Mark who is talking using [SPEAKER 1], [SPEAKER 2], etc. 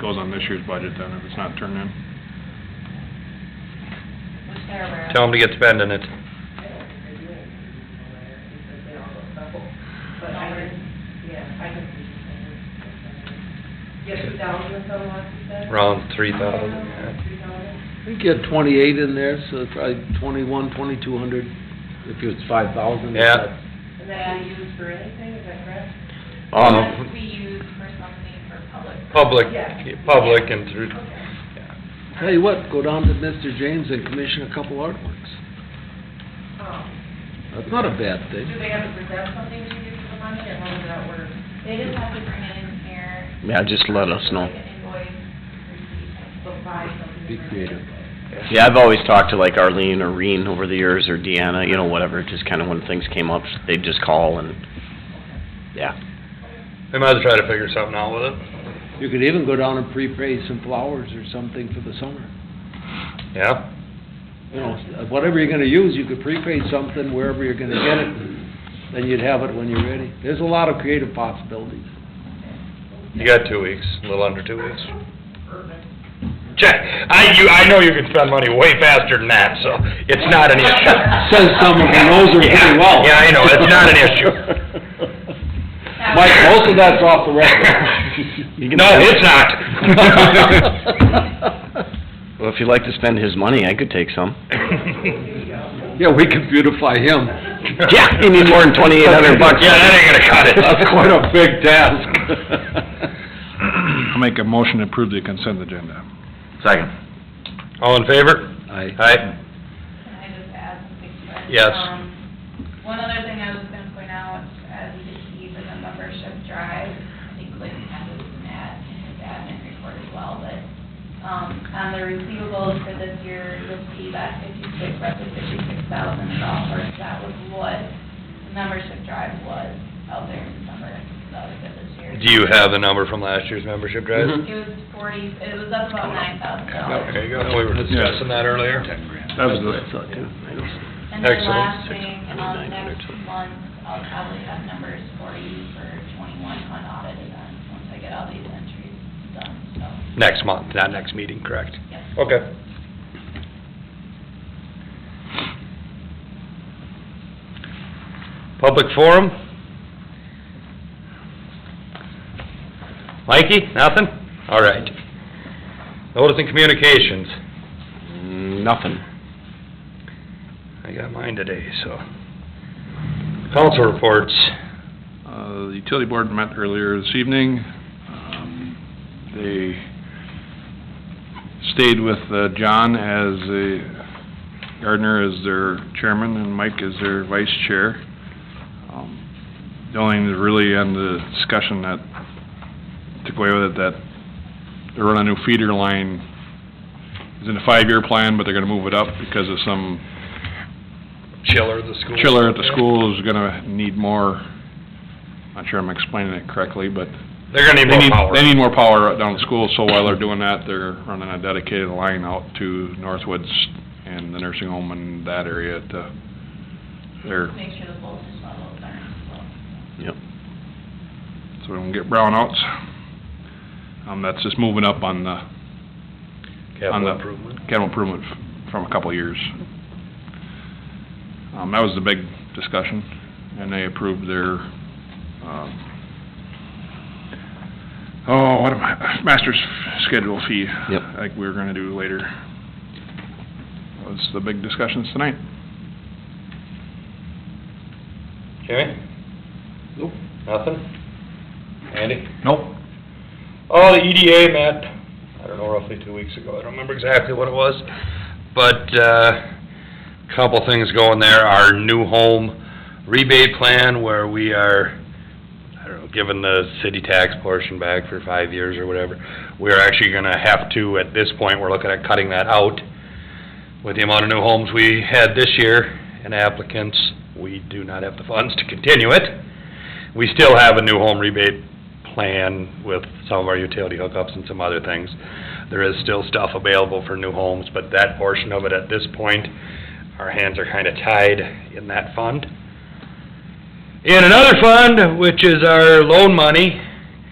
[SPEAKER 1] goes on this year's budget then, if it's not turned in.
[SPEAKER 2] which they're aware of.
[SPEAKER 3] Tell them to get spending it.
[SPEAKER 4] But I didn't, yeah, I didn't. Get a thousand or so, like you said?
[SPEAKER 3] Around three thousand, yeah.
[SPEAKER 4] Three thousand?
[SPEAKER 5] I think you had twenty-eight in there, so probably twenty-one, twenty-two hundred, if it's five thousand.
[SPEAKER 3] Yeah.
[SPEAKER 4] And that you use for anything, is that correct?
[SPEAKER 2] Unless we use for something for public.
[SPEAKER 3] Public,
[SPEAKER 4] Yeah.
[SPEAKER 3] public and through,
[SPEAKER 5] Tell you what, go down to Mr. James and commission a couple artworks.
[SPEAKER 4] Um,
[SPEAKER 5] That's not a bad thing.
[SPEAKER 4] do they have to present something to you for the money, or how does that work?
[SPEAKER 2] They just have to bring it in here.
[SPEAKER 6] Yeah, just let us know.
[SPEAKER 2] Like an invoice receipt.
[SPEAKER 4] So buy something.
[SPEAKER 5] Be creative.
[SPEAKER 6] Yeah, I've always talked to like Arlene or Reen over the years, or Deanna, you know, whatever, just kinda when things came up, they'd just call and, yeah.
[SPEAKER 3] we might as well try to figure something out with it.
[SPEAKER 5] You could even go down and prepay some flowers or something for the summer.
[SPEAKER 3] Yeah,
[SPEAKER 5] You know, whatever you're gonna use, you could prepay something wherever you're gonna get it, then you'd have it when you're ready. There's a lot of creative possibilities.
[SPEAKER 3] you got two weeks, a little under two weeks. Check, I, you, I know you can spend money way faster than that, so it's not an issue.
[SPEAKER 5] Says someone who knows her pretty well.
[SPEAKER 3] Yeah, I know, it's not an issue.
[SPEAKER 5] Mike, most of that's off the record.
[SPEAKER 6] You can
[SPEAKER 3] No,
[SPEAKER 6] spend-
[SPEAKER 3] it's not.
[SPEAKER 6] Well, if you'd like to spend his money, I could take some.
[SPEAKER 5] Yeah, we could beautify him.
[SPEAKER 6] Yeah, you need more than twenty-eight hundred bucks.
[SPEAKER 3] Yeah, that ain't gonna cut it.
[SPEAKER 5] That's quite a big task.
[SPEAKER 1] I'll make a motion to approve the consent agenda.
[SPEAKER 6] Second.
[SPEAKER 3] All in favor?
[SPEAKER 5] I,
[SPEAKER 3] Aye.
[SPEAKER 2] Can I just add something to that?
[SPEAKER 3] Yes.
[SPEAKER 2] Um, One other thing I was gonna point out, as you can see from the membership drive, I think Clayton had this in that, in his admin report as well, but, um, on the receivables for this year, you'll see that fifty-six, roughly fifty-six thousand dollars, that was what the membership drive was out there in December, that was for this year.
[SPEAKER 3] Do you have the number from last year's membership drive?
[SPEAKER 5] Mhm.
[SPEAKER 2] It was forty, it was up about nine thousand dollars.
[SPEAKER 3] Okay, good. We were discussing that earlier.
[SPEAKER 1] That was the,
[SPEAKER 2] And then
[SPEAKER 3] Excellent.
[SPEAKER 2] last thing, um,
[SPEAKER 6] Six,
[SPEAKER 2] next
[SPEAKER 6] nine,
[SPEAKER 2] month, I'll probably have numbers for you for twenty-one unaudited on, once I get all these entries done, so,
[SPEAKER 3] Next Oh, month, not next meeting, correct?
[SPEAKER 2] yes.
[SPEAKER 3] Okay. Public forum? Mikey, nothing? All right. Notice and communications.
[SPEAKER 6] Nothing.
[SPEAKER 3] I got mine today, so. Council reports.
[SPEAKER 1] uh, the utility board met earlier this evening. Um, They stayed with uh, John as a, Gardner as their chairman and Mike as their vice chair. Um, The only thing that really on the discussion that took away with it, that they're running a new feeder line. It's in a five-year plan, but they're gonna move it up because of some
[SPEAKER 3] Chiller at the school.
[SPEAKER 1] chiller at the school is gonna need more, not sure I'm explaining it correctly, but
[SPEAKER 3] They're gonna need
[SPEAKER 1] they
[SPEAKER 3] more
[SPEAKER 1] need,
[SPEAKER 3] power.
[SPEAKER 1] they need more power down at school, so while they're doing that, they're running a dedicated line out to Northwoods and the nursing home and that area to, there,
[SPEAKER 2] Make sure the voltage levels are, well,
[SPEAKER 6] Yep.
[SPEAKER 1] so we don't get brownouts. Um, that's just moving up on the on
[SPEAKER 3] Capital
[SPEAKER 1] the-
[SPEAKER 3] improvement.
[SPEAKER 1] capital improvement f- from a couple of years. Um, that was the big discussion, and they approved their, um, oh, what am I, master's schedule fee.
[SPEAKER 6] Yep.
[SPEAKER 1] Like we were gonna do later. That was the big discussions tonight.
[SPEAKER 3] Jimmy?
[SPEAKER 5] Nope.
[SPEAKER 3] Nothing? Andy?
[SPEAKER 1] Nope.
[SPEAKER 3] Oh, the EDA met, I don't know, roughly two weeks ago, I don't remember exactly what it was, but, uh, couple things going there, our new home rebate plan where we are, I don't know, given the city tax portion back for five years or whatever, we're actually gonna have to, at this point, we're looking at cutting that out. With the amount of new homes we had this year and applicants, we do not have the funds to continue it. We still have a new home rebate plan with some of our utility hookups and some other things. There is still stuff available for new homes, but that portion of it at this point, our hands are kind of tied in that fund. In another fund, which is our loan money,